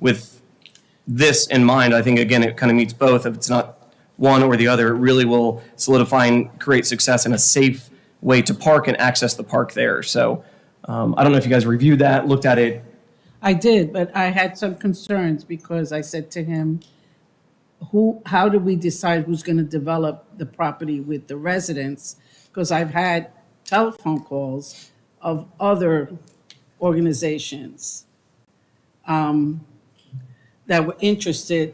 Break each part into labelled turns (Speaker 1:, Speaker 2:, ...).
Speaker 1: with this in mind, I think again, it kind of meets both. If it's not one or the other, it really will solidify and create success in a safe way to park and access the park there. So um, I don't know if you guys reviewed that, looked at it.
Speaker 2: I did, but I had some concerns because I said to him, who, how do we decide who's going to develop the property with the residents? Because I've had telephone calls of other organizations um, that were interested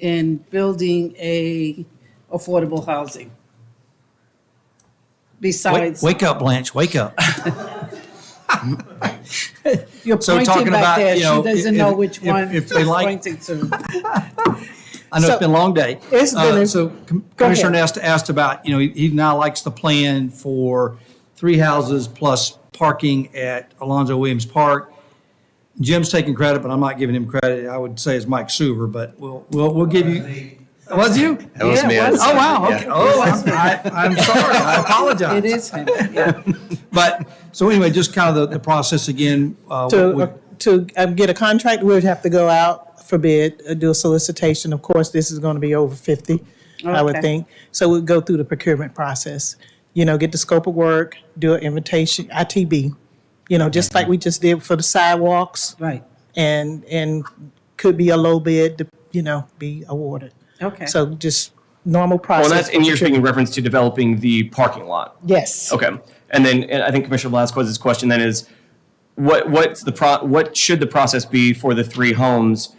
Speaker 2: in building a affordable housing.
Speaker 3: Wake,
Speaker 2: Besides,
Speaker 3: wake up, Blanche, wake up.
Speaker 2: you're
Speaker 3: so
Speaker 2: pointing
Speaker 3: talking
Speaker 2: back
Speaker 3: about,
Speaker 2: there, she
Speaker 3: you know,
Speaker 2: doesn't
Speaker 3: if-
Speaker 2: know
Speaker 3: if-
Speaker 2: which
Speaker 3: if-
Speaker 2: one
Speaker 3: if
Speaker 2: she's
Speaker 3: they like-
Speaker 2: pointing to.
Speaker 3: I know
Speaker 2: So-
Speaker 3: it's been a long day.
Speaker 2: It's been
Speaker 3: Uh,
Speaker 2: a-
Speaker 3: So Com-
Speaker 2: Go ahead.
Speaker 3: Commissioner Nesta asked about, you know, he- he now likes the plan for three houses plus parking at Alonzo Williams Park. Jim's taking credit, but I'm not giving him credit. I would say it's Mike Suver, but we'll, we'll, we'll give you. Was you?
Speaker 4: That was
Speaker 2: Yeah,
Speaker 4: me.
Speaker 2: it was.
Speaker 3: Oh, wow.
Speaker 4: Yeah.
Speaker 3: Okay. Oh, I'm, I, I'm sorry. I apologize.
Speaker 2: It is him, yeah.
Speaker 3: But, so anyway, just kind of the, the process again. uh, would-
Speaker 5: To, to um, get a contract, we would have to go out for bid, uh, do a solicitation. Of course, this is going to be over 50, I would
Speaker 2: Okay.
Speaker 5: think. So we'd go through the procurement process, you know, get the scope of work, do an invitation, ITB, you know, just like we just did for the sidewalks
Speaker 2: Right,
Speaker 5: and, and could be a low bid, to, you know, be awarded.
Speaker 2: okay.
Speaker 5: So just normal
Speaker 1: Well,
Speaker 5: process.
Speaker 1: that's, Oh, and you're speaking in reference to developing the parking lot.
Speaker 5: Yes.
Speaker 1: Okay. And then and I think Commissioner Velasquez's question then is, what what's the pro, what should the process be for the three homes?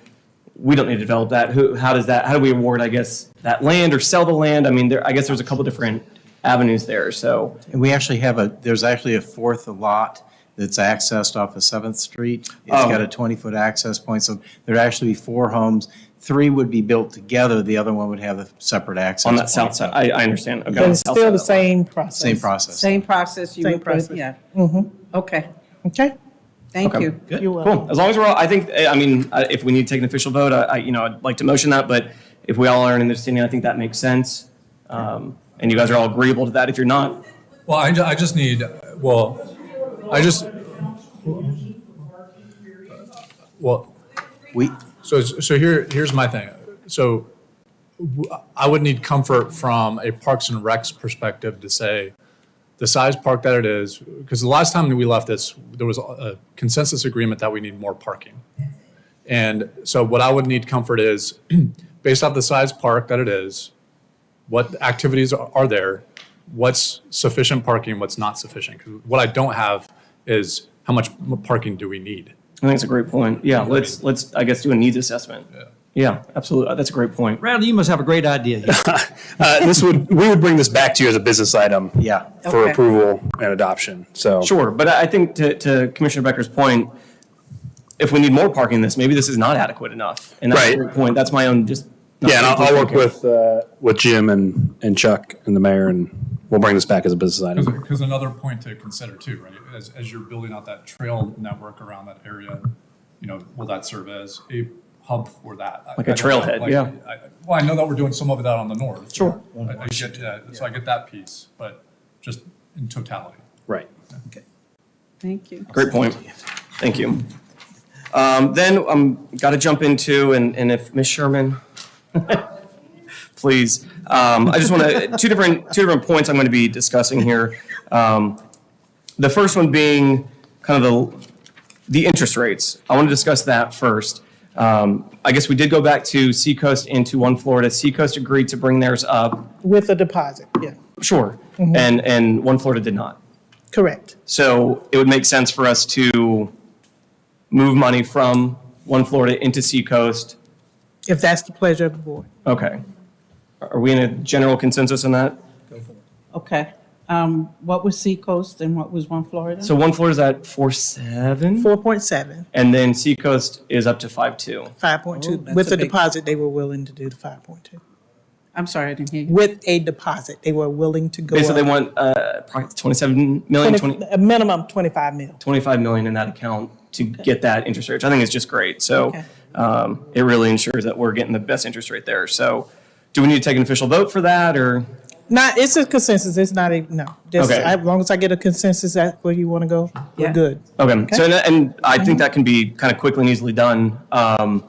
Speaker 1: We don't need to develop that. Who how does that how do we award I guess that land or sell the land? I mean there I guess there's a couple different avenues there. So
Speaker 4: And we actually have a, there's actually a fourth lot that's accessed off of Seventh Street. It's
Speaker 1: Oh.
Speaker 4: got a 20-foot access point, so there'd actually be four homes. Three would be built together, the other one would have a separate access.
Speaker 1: on that
Speaker 4: point.
Speaker 1: south side, I, I understand. Okay.
Speaker 5: But
Speaker 1: on
Speaker 5: it's
Speaker 1: south
Speaker 5: still
Speaker 1: side
Speaker 5: the
Speaker 1: of that lot.
Speaker 5: same process.
Speaker 4: Same process.
Speaker 2: Same process you
Speaker 5: Same
Speaker 2: would put,
Speaker 5: process. Mm-hmm.
Speaker 2: yeah. Okay,
Speaker 5: Okay?
Speaker 2: thank
Speaker 1: Okay.
Speaker 2: you.
Speaker 5: You're welcome.
Speaker 1: Cool. As long as we're all, I think I mean I- if we need to take an official vote, I, I you know I'd like to motion that. But if we all are in the understanding, I think that makes sense. Um, and you guys are all agreeable to that. If you're not,
Speaker 6: Well, I, ju- I just need, well, I just. Well,
Speaker 4: We,
Speaker 6: so, so here, here's my thing. So w- I would need comfort from a Parks and Recs perspective to say the size park that it is, because the last time that we left this, there was a consensus agreement that we need more parking. And so what I would need comfort is, based off the size park that it is, what activities are, are there, what's sufficient parking, what's not sufficient. 'Cause what I don't have is how much m- parking do we need?
Speaker 1: I think it's a great point. Yeah, let's let's I guess do a needs assessment. Yeah, absolutely. That's a great point.
Speaker 3: Bradley, you must have a great idea. here.
Speaker 7: Uh, this would, we would bring this back to you as a business item.
Speaker 4: yeah.
Speaker 2: Okay.
Speaker 7: For approval and adoption, so.
Speaker 1: Sure, but I I think to, to Commissioner Becker's point, if we need more parking, in this maybe this is not adequate enough. And that's a
Speaker 7: Right.
Speaker 1: great point. That's my own just.
Speaker 7: Yeah, and I'll, I'll work with, uh, with Jim and, and Chuck and the mayor, and we'll bring this back as a business item.
Speaker 6: Because another point to consider too, right, as, as you're building out that trail network around that area, you know, will that serve as a hub for that? I-
Speaker 1: Like a
Speaker 6: I don't know,
Speaker 1: trailhead,
Speaker 6: like,
Speaker 1: yeah.
Speaker 6: I- I- Well, I know that we're doing some of that on the north. Sure. I I get, yeah, so I get that piece, but just in totality.
Speaker 7: Right.
Speaker 2: Thank you.
Speaker 1: Great point. Thank you. Um, then I'm got to jump into and and if Ms. Sherman, please, um, I just want to two different two different points I'm going to be discussing here. Um, the first one being kind of the the interest rates. I want to discuss that first. Um, I guess we did go back to Seacoast and to One Florida. Seacoast agreed to bring theirs up,
Speaker 5: With a deposit, yeah.
Speaker 1: sure, and and One Florida did not.
Speaker 5: Correct.
Speaker 1: So it would make sense for us to move money from One Florida into Seacoast.
Speaker 5: If that's the pleasure of the board.
Speaker 1: Okay. Are we in a general consensus on that?
Speaker 2: Okay. Um, What was Seacoast and what was One Florida?
Speaker 1: So One Florida's at four seven,
Speaker 5: 4.7,
Speaker 1: and then Seacoast is up to five two.
Speaker 5: 5.2.
Speaker 2: that's
Speaker 5: With
Speaker 2: a
Speaker 5: a
Speaker 2: big-
Speaker 5: deposit, they were willing to do the 5.2.
Speaker 2: I'm sorry, I didn't hear you.
Speaker 5: With a deposit, they were willing to go up.
Speaker 1: Basically, they want uh, probably twenty-seven million,
Speaker 5: 20
Speaker 1: twenty,
Speaker 5: A minimum 25 mil.
Speaker 1: twenty-five million in that account to get that interest rate, which I think is just great. So
Speaker 5: Okay.
Speaker 1: um, it really ensures that we're getting the best interest rate there. So do we need to take an official vote for that, or?
Speaker 5: Not, it's a consensus, it's not a, no. Just,
Speaker 1: Okay.
Speaker 5: I- as long as I get a consensus, that's where you want to go,
Speaker 2: Yeah.
Speaker 5: we're good.
Speaker 1: Okay, so, and- and I think that can be kind of quickly and easily done. Um,